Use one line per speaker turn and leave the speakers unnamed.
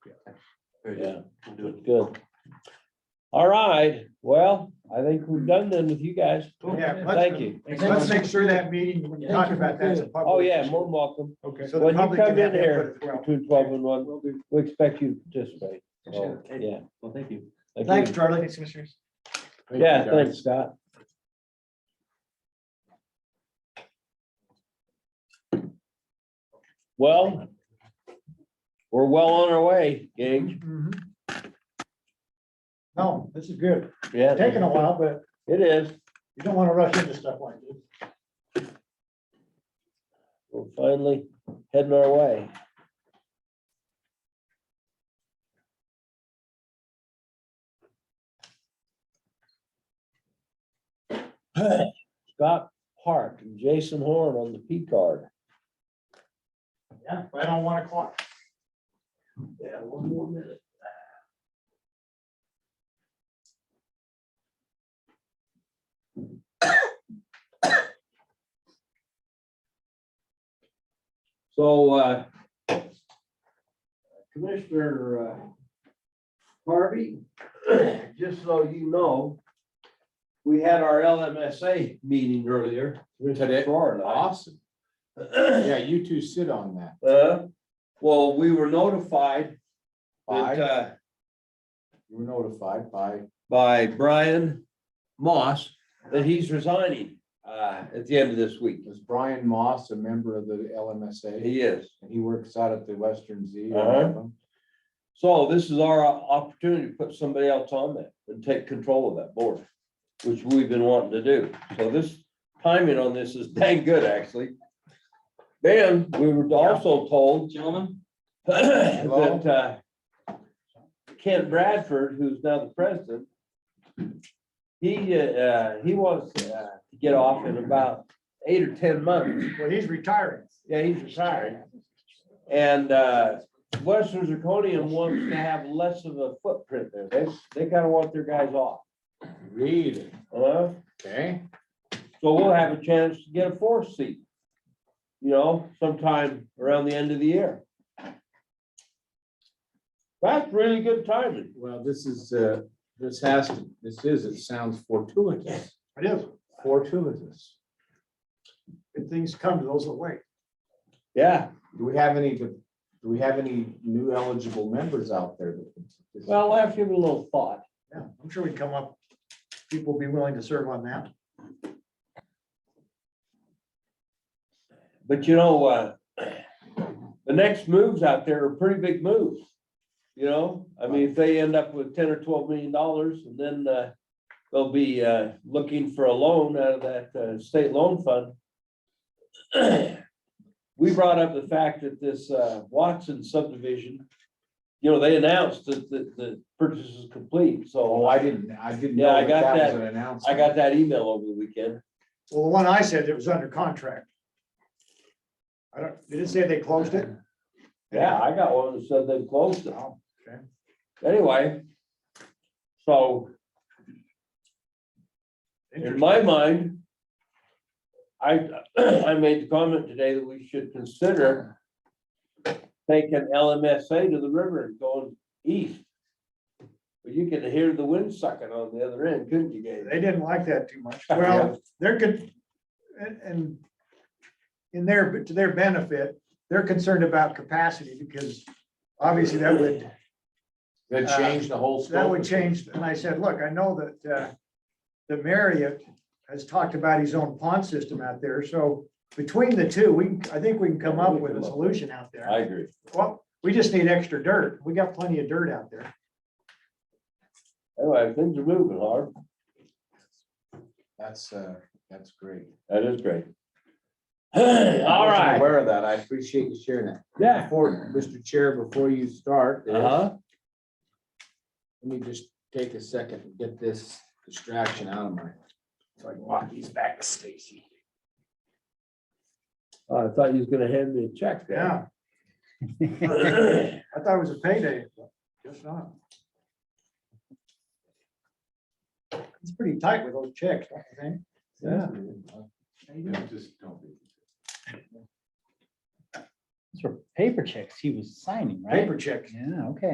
Very
Yeah,
good. We'll do it.
good. All right, well, I think we're done then with you guys.
Oh, Yeah, let's-
Thank you.
Let's make sure that meeting, when you talk about that, it's a public.
Oh, yeah,
issue.
more than welcome.
Okay. So the
When you
public can
come in
have input
here
as well.
between twelve and one,
Will do.
we expect you to participate. So,
Okay.
yeah.
Well, thank you.
Thank you.
Thanks, Charlie. Thanks, commissioners.
Yeah, thanks, Scott. Well, we're well on our way, Gage.
Mhm. No, this is good.
Yeah,
Taking a while, but
it is.
you don't want to rush into stuff like this.
We're finally heading our way. Scott Park and Jason Horn on the P card.
Yeah, right on one o'clock.
Yeah, one more minute. So, uh, Commissioner uh, Harvey, just so you know, we had our LMSA meeting earlier.
Today?
Florida.
Awesome. Yeah, you two sit on that.
Uh, well, we were notified
By,
that, uh,
you were notified by,
by Brian Moss that he's resigning uh, at the end of this week.
was Brian Moss a member of the LMSA?
He is.
And he works out at the Western Z.
Uh-huh. So this is our opportunity to put somebody else on that and take control of that board, which we've been wanting to do. So this timing on this is dang good, actually. Then we were also told
Gentlemen,
that uh, Ken Bradford, who's now the president, he, uh, he wants uh, to get off in about eight or 10 months.
Well, he's retiring.
Yeah, he's retired. And uh, Western Zirconium wants to have less of a footprint there. They, they kind of want their guys off.
Read it,
Uh,
okay?
So we'll have a chance to get a fourth seat, you know, sometime around the end of the year. That's really good timing.
Well, this is, uh, this has to, this is, it sounds fortuitous,
It is.
fortuitous.
Good things come to those that wait.
Yeah,
Do we have any, do we have any new eligible members out there? that can-
well, I'll have to give it a little thought.
Yeah, I'm sure we can come up. People be willing to serve on that.
But you know, uh, the next moves out there are pretty big moves. You know, I mean, if they end up with ten or twelve million dollars and then, uh, they'll be, uh, looking for a loan out of that, uh, state loan fund. We brought up the fact that this, uh, Watson subdivision, you know, they announced that, that the purchase is complete,
Oh,
so
I didn't, I didn't
Yeah, I
know
got
that that was
that.
an announcement.
I got that email over the weekend.
Well, the one I said that was under contract. I don't, did it say they closed it?
Yeah, I got one that said they closed it.
Oh, okay.
Anyway, so in my mind, I, I made the comment today that we should consider taking LMSA to the river and going east. But you could hear the wind sucking on the other end, couldn't you, Gabe?
They didn't like that too much. Well, they're good, and, and in their, to their benefit, they're concerned about capacity because obviously that would,
That changed the
uh,
whole.
that
scope
would
of it.
change. And I said, look, I know that, uh, the Marriott has talked about his own pond system out there. So between the two, we, I think we can come up with a solution out there.
I agree.
Well, we just need extra dirt. We got plenty of dirt out there.
Anyway, things are moving hard.
That's, uh, that's great.
That is great. All
I wasn't
right.
Aware of that. I appreciate you sharing that.
Yeah.
Before, Mr. Chair, before you start, this, let
Uh-huh.
me just take a second and get this distraction out of my. So I can walk these back to Stacy.
I thought you was gonna hand me a check. there.
Yeah, I thought it was a payday. but Guess not. It's pretty tight with those checks, don't you think?
Yeah.
Yeah, Just don't be.
Those were paper checks he was signing, right?
Paper checks.
Yeah, okay.